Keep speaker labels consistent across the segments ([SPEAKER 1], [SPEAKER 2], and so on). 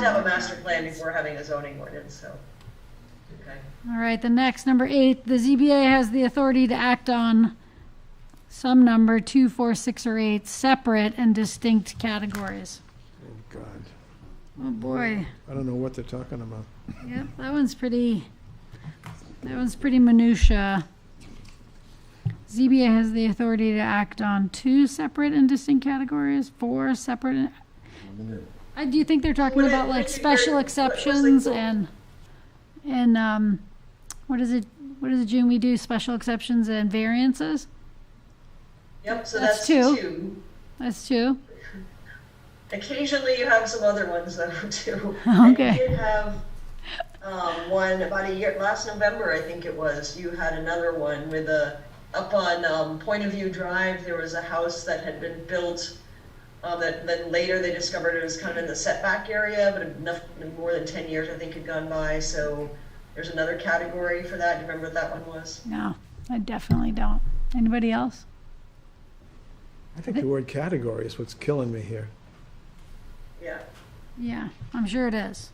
[SPEAKER 1] to have a master plan before having a zoning ordinance, so. Okay.
[SPEAKER 2] All right, the next, number eight, the ZBA has the authority to act on some number, two, four, six, or eight, separate and distinct categories.
[SPEAKER 3] Oh, God,
[SPEAKER 2] Oh, boy.
[SPEAKER 3] I don't know what they're talking about.
[SPEAKER 2] Yep, that one's pretty, that one's pretty minutia. ZBA has the authority to act on two separate and distinct categories, four separate. I do think they're talking
[SPEAKER 1] Would it-
[SPEAKER 2] about
[SPEAKER 1] would
[SPEAKER 2] like
[SPEAKER 1] it be
[SPEAKER 2] special
[SPEAKER 1] very-
[SPEAKER 2] exceptions
[SPEAKER 1] like-
[SPEAKER 2] and, and, um, what is it, what is it, June, we do special exceptions and variances?
[SPEAKER 1] Yep, so
[SPEAKER 2] That's
[SPEAKER 1] that's
[SPEAKER 2] two.
[SPEAKER 1] two.
[SPEAKER 2] That's two.
[SPEAKER 1] Occasionally you have some other ones though, too.
[SPEAKER 2] Okay.
[SPEAKER 1] And you did have, um, one about a year, last November, I think it was, you had another one with a, up on, um, Point of View Drive, there was a house that had been built, uh, that, that later they discovered it was kind of in the setback area, but enough, more than ten years, I think, had gone by, so there's another category for that, do you remember what that one was?
[SPEAKER 2] No, I definitely don't. Anybody else?
[SPEAKER 3] I think the word category is what's killing me here.
[SPEAKER 1] Yeah.
[SPEAKER 2] Yeah, I'm sure it is.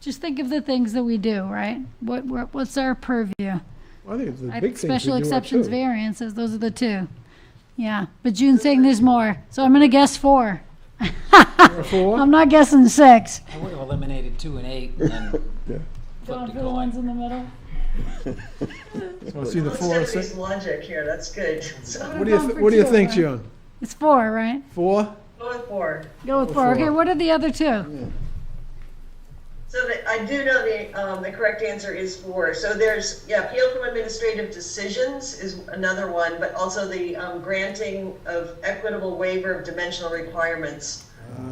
[SPEAKER 2] Just think of the things that we do, right? What, what what's our purview?
[SPEAKER 3] I think the
[SPEAKER 2] I think
[SPEAKER 3] big things
[SPEAKER 2] special
[SPEAKER 3] we do are
[SPEAKER 2] exceptions,
[SPEAKER 3] too.
[SPEAKER 2] variances, those are the two. Yeah, but June's saying there's more, so I'm gonna guess four.
[SPEAKER 3] Or four?
[SPEAKER 2] I'm not guessing six.
[SPEAKER 4] I would have eliminated two and eight and then
[SPEAKER 3] Yeah.
[SPEAKER 4] flipped a
[SPEAKER 2] the ones
[SPEAKER 4] coin.
[SPEAKER 2] in the middle.
[SPEAKER 3] So it's either
[SPEAKER 1] Let's
[SPEAKER 3] four or
[SPEAKER 1] get
[SPEAKER 3] six.
[SPEAKER 1] these logic here, that's good. So,
[SPEAKER 3] What do you, th- what do you think, June?
[SPEAKER 2] It's four, right?
[SPEAKER 3] Four?
[SPEAKER 1] go with four.
[SPEAKER 2] Go with four. Okay,
[SPEAKER 3] Four.
[SPEAKER 2] what are the other two?
[SPEAKER 1] So the, I do know the, um, the correct answer is four. So there's, yeah, appeal from administrative decisions is another one, but also the, um, granting of equitable waiver of dimensional requirements. So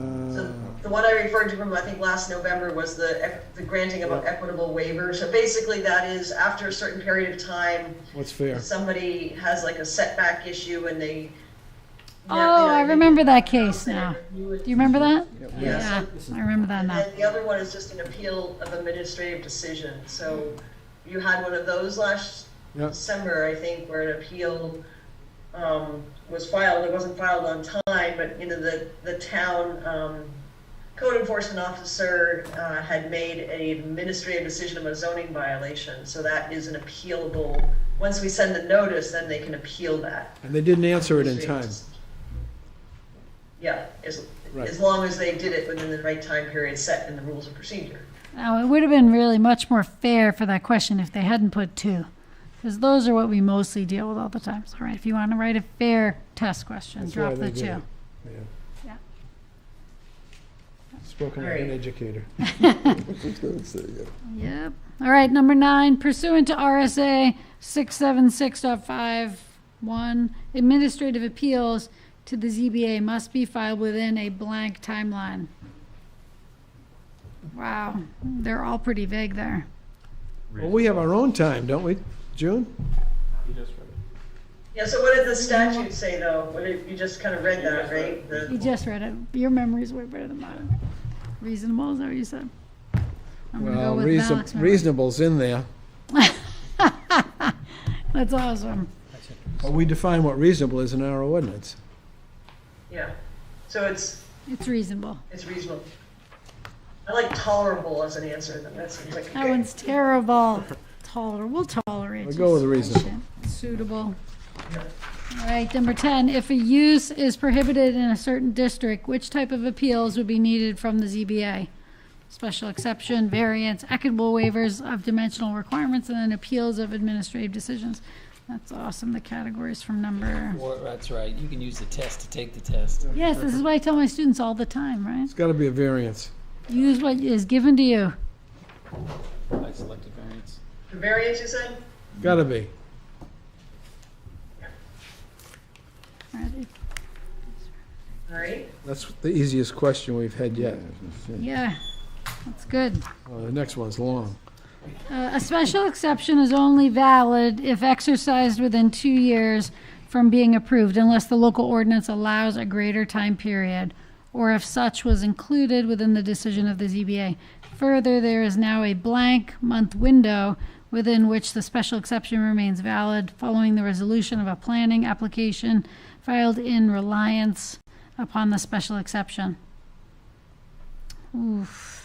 [SPEAKER 3] Uh,
[SPEAKER 1] the one I referred to from, I think, last November was the, ec- the granting of an equitable waiver. So basically that is after a certain period of time,
[SPEAKER 3] What's fair?
[SPEAKER 1] if somebody has like a setback issue and they.
[SPEAKER 2] Oh, I remember that case now.
[SPEAKER 1] Do
[SPEAKER 2] Do you remember that?
[SPEAKER 1] Yes.
[SPEAKER 2] Yeah, I remember that
[SPEAKER 1] And
[SPEAKER 2] now.
[SPEAKER 1] then the other one is just an appeal of administrative decision. So you had one of those last
[SPEAKER 3] Yep.
[SPEAKER 1] December, I think, where an appeal um, was filed. It wasn't filed on time, but, you know, the, the town um, code enforcement officer uh, had made an administrative decision of a zoning violation. So that is an appealable, once we send the notice, then they can appeal that.
[SPEAKER 3] And they didn't answer it in time.
[SPEAKER 1] Yeah, as,
[SPEAKER 3] Right.
[SPEAKER 1] as long as they did it within the right time period set in the rules of procedure.
[SPEAKER 2] Now, it would have been really much more fair for that question if they hadn't put two, because those are what we mostly deal with all the time. So, all right, if you want to write a fair test question,
[SPEAKER 3] That's why
[SPEAKER 2] drop
[SPEAKER 3] they
[SPEAKER 2] the
[SPEAKER 3] did
[SPEAKER 2] two.
[SPEAKER 3] it. Yeah.
[SPEAKER 2] Yeah.
[SPEAKER 3] Spoken like an
[SPEAKER 1] Alright.
[SPEAKER 3] educator.
[SPEAKER 2] Yep. All right, number nine, pursuant to RSA 676.51, administrative appeals to the ZBA must be filed within a blank timeline. Wow, they're all pretty vague there.
[SPEAKER 3] Well, we have our own time, don't we, June?
[SPEAKER 1] Yeah, so what did the statute say though? What did, you just kind of read that, right?
[SPEAKER 2] You
[SPEAKER 1] The-
[SPEAKER 2] just read it. Your memory's way better than mine. Reasonable, is that what you said? I'm gonna go
[SPEAKER 3] Well,
[SPEAKER 2] with
[SPEAKER 3] reason-
[SPEAKER 2] Malik's memory.
[SPEAKER 3] reasonable's in there.
[SPEAKER 2] That's awesome.
[SPEAKER 3] But we define what reasonable is in our ordinance.
[SPEAKER 1] Yeah, so it's,
[SPEAKER 2] It's reasonable.
[SPEAKER 1] it's reasonable. I like tolerable as an answer, then that seems like a
[SPEAKER 2] That
[SPEAKER 1] good.
[SPEAKER 2] one's terrible. Toler, we'll tolerate.
[SPEAKER 3] We'll go with
[SPEAKER 2] your
[SPEAKER 3] reasonable.
[SPEAKER 2] situation. Suitable. All right, number ten, if a use is prohibited in a certain district, which type of appeals would be needed from the ZBA? Special exception, variance, equitable waivers of dimensional requirements, and then appeals of administrative decisions. That's awesome, the categories from number.
[SPEAKER 4] Well, that's right. You can use the test to take the test.
[SPEAKER 2] Yes, this is what I tell my students all the time, right?
[SPEAKER 3] It's got to be a variance.
[SPEAKER 2] Use what is given to you.
[SPEAKER 4] I selected variance.
[SPEAKER 1] The variance you said?
[SPEAKER 3] Got to be.
[SPEAKER 2] All right,
[SPEAKER 1] All right,
[SPEAKER 3] That's the easiest question we've had yet.
[SPEAKER 2] Yeah, that's good.
[SPEAKER 3] Well, the next one's long.
[SPEAKER 2] Uh, A special exception is only valid if exercised within two years from being approved unless the local ordinance allows a greater time period or if such was included within the decision of the ZBA. Further, there is now a blank month window within which the special exception remains valid following the resolution of a planning application filed in reliance upon the special exception. Oof.